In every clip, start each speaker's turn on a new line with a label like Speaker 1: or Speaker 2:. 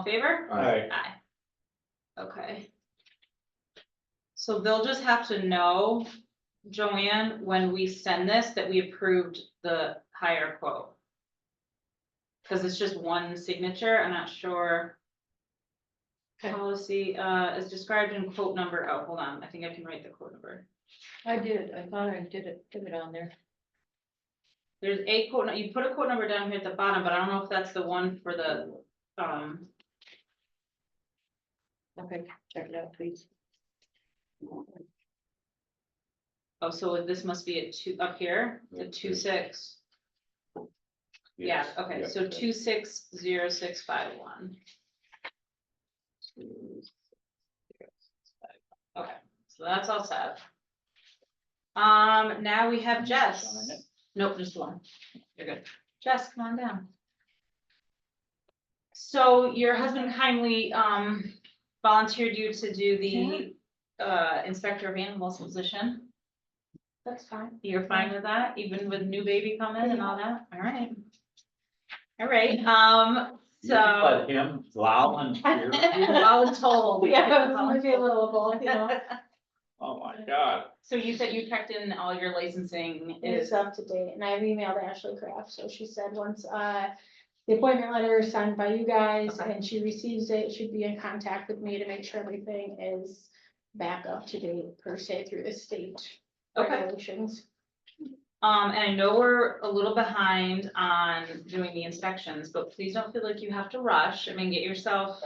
Speaker 1: All in favor?
Speaker 2: Alright,
Speaker 1: Aye. Okay. So they'll just have to know, Joanne, when we send this, that we approved the higher quote. Cause it's just one signature, I'm not sure.
Speaker 3: Okay.
Speaker 1: Policy, uh, is described in quote number, oh, hold on, I think I can write the quote number.
Speaker 3: I did, I thought I did it, put it on there.
Speaker 1: There's a quote, nu- you put a quote number down here at the bottom, but I don't know if that's the one for the, um,
Speaker 3: Okay, check it out, please.
Speaker 1: oh, so this must be a two, up here, the
Speaker 2: Yeah.
Speaker 1: two six. Yeah,
Speaker 2: yes,
Speaker 1: okay,
Speaker 2: yeah,
Speaker 1: so two six zero six five one. Okay, so that's all set. Um, now we have
Speaker 4: Sign
Speaker 1: Jess.
Speaker 4: it.
Speaker 1: Nope, just one.
Speaker 4: You're good.
Speaker 1: Jess, come on down. So your husband kindly, um, volunteered you to do the, uh, inspector of animals position.
Speaker 3: That's fine.
Speaker 1: You're fine with that, even with new baby coming and all that, alright. Alright, um,
Speaker 4: You can
Speaker 1: so,
Speaker 4: Let him volunteer.
Speaker 1: I was told.
Speaker 3: Yeah, it's maybe a little both, you know.
Speaker 4: Oh, my God.
Speaker 1: So you said you checked in all your licensing
Speaker 5: It's
Speaker 1: is,
Speaker 5: up to date, and I've emailed Ashley Craft, so she said once, uh, the appointment letter is signed by you guys
Speaker 1: Okay.
Speaker 5: and she receives it, she'd be in contact with me to make sure everything is back up to date per se through the state
Speaker 1: okay,
Speaker 5: regulations.
Speaker 1: um, and I know we're a little behind on doing the inspections, but please don't feel like you have to rush, I mean, get yourself,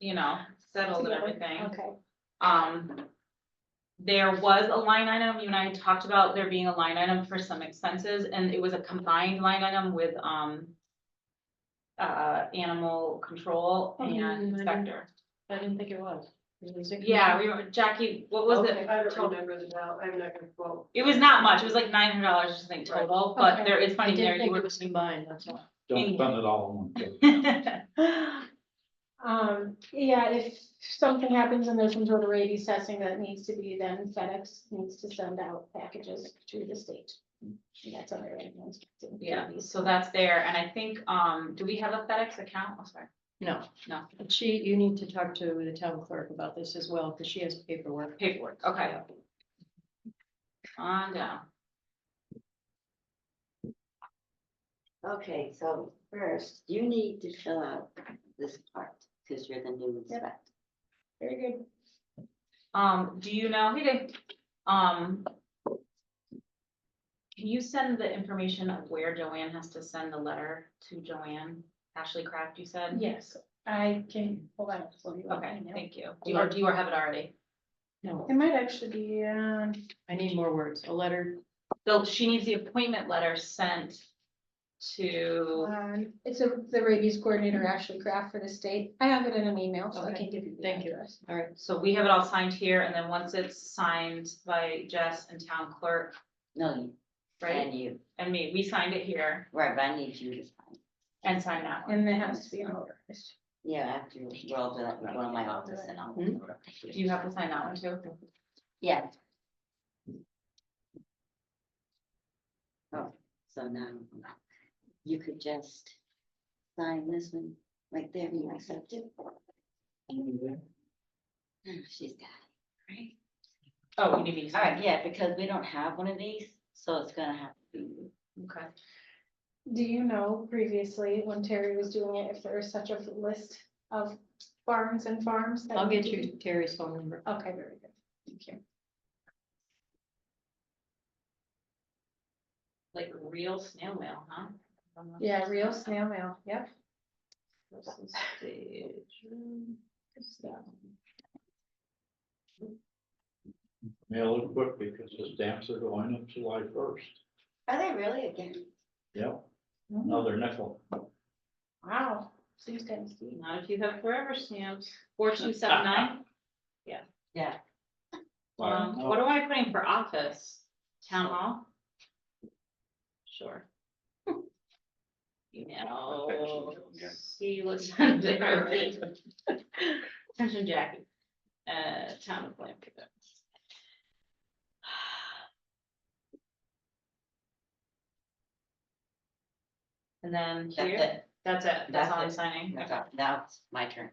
Speaker 1: you know, settled and
Speaker 5: Together.
Speaker 1: everything.
Speaker 5: Okay,
Speaker 1: Um, there was a line item, you and I talked about there being a line item for some expenses, and it was a combined line item with, um, uh, animal control
Speaker 3: Oh, yeah, I
Speaker 1: and
Speaker 3: know.
Speaker 1: inspector.
Speaker 3: I didn't think it was.
Speaker 1: Yeah, we were, Jackie, what was it?
Speaker 3: Okay.
Speaker 6: I don't remember the amount, I'm not gonna quote.
Speaker 1: It was not much, it was like nine hundred dollars, I think, total, but
Speaker 3: Okay.
Speaker 1: there is
Speaker 3: I
Speaker 1: money there, you
Speaker 3: did think
Speaker 1: were.
Speaker 3: it was combined, that's all.
Speaker 4: Don't spend it all in one day.
Speaker 5: um, yeah, if something happens and there's some sort of rabies testing that needs to be, then FedEx needs to send out packages to the state. And That's under.
Speaker 1: Yeah, so that's there, and I think, um, do we have a FedEx account? Oh, sorry,
Speaker 3: No,
Speaker 1: no,
Speaker 3: but she, you need to talk to the town clerk about this as well, because she has paperwork.
Speaker 1: paperwork, okay. On down.
Speaker 7: Okay, so first, you need to fill out this part, because you're the new
Speaker 5: Yep.
Speaker 7: inspector.
Speaker 5: Very good.
Speaker 1: Um, do you know, hey, Dave, um. Can you send the information of where Joanne has to send the letter to Joanne, Ashley Craft, you said?
Speaker 5: Yes, I can pull that up for you.
Speaker 1: Okay,
Speaker 5: right now.
Speaker 1: thank you. Do you, or do you have it already?
Speaker 3: No,
Speaker 5: It might actually be, um,
Speaker 3: I need more words, a letter,
Speaker 1: So she needs the appointment letter sent to,
Speaker 5: um, it's a, the rabies coordinator Ashley Craft for the state. I have it in an email, so I
Speaker 3: Okay,
Speaker 5: can give you the
Speaker 3: thank you.
Speaker 5: address.
Speaker 3: all right,
Speaker 1: so we have it all signed here, and then once it's signed by Jess and town clerk,
Speaker 7: No, you,
Speaker 1: right?
Speaker 7: and you,
Speaker 1: And me, we signed it here
Speaker 7: right, but I need you to sign.
Speaker 1: and signed that one.
Speaker 5: And it has to be notarized.
Speaker 7: Yeah, after we're all done, we go to my office and I'll.
Speaker 1: Hmm? Do you have to sign that one too?
Speaker 7: Yeah. Oh, so now, you could just sign this one, right there, you accept it. Oh, She's got it.
Speaker 1: Right. Oh, you need me to
Speaker 7: All
Speaker 1: sign
Speaker 7: right,
Speaker 1: it?
Speaker 7: yeah, because we don't have one of these, so it's gonna have to be.
Speaker 1: Okay.
Speaker 5: Do you know previously when Terry was doing it, if there was such a list of farms and farms? that
Speaker 3: I'll get
Speaker 5: needed-
Speaker 3: you Terry's phone number.
Speaker 5: Okay, very good. Thank you.
Speaker 1: Like real snail mail, huh?
Speaker 5: Yeah, real snail mail, yep.
Speaker 1: This is stage, um,
Speaker 4: Mail it quick because the stamps are going up July first.
Speaker 7: Are they really again?
Speaker 4: Yep,
Speaker 1: Mm-hmm.
Speaker 4: another nickel.
Speaker 5: Wow, seems kind of steep.
Speaker 1: Not if you have forever stamps, four two seven nine,
Speaker 7: Yeah.
Speaker 1: um, what am I putting for office? Town hall? Sure. You know, see, listen, there. Attention Jackie, uh, town of Blanford. And then
Speaker 7: That's
Speaker 1: here,
Speaker 7: it.
Speaker 1: That's it, that's
Speaker 7: That's
Speaker 1: all I'm
Speaker 7: it.
Speaker 1: signing, okay.
Speaker 7: Now it's my turn.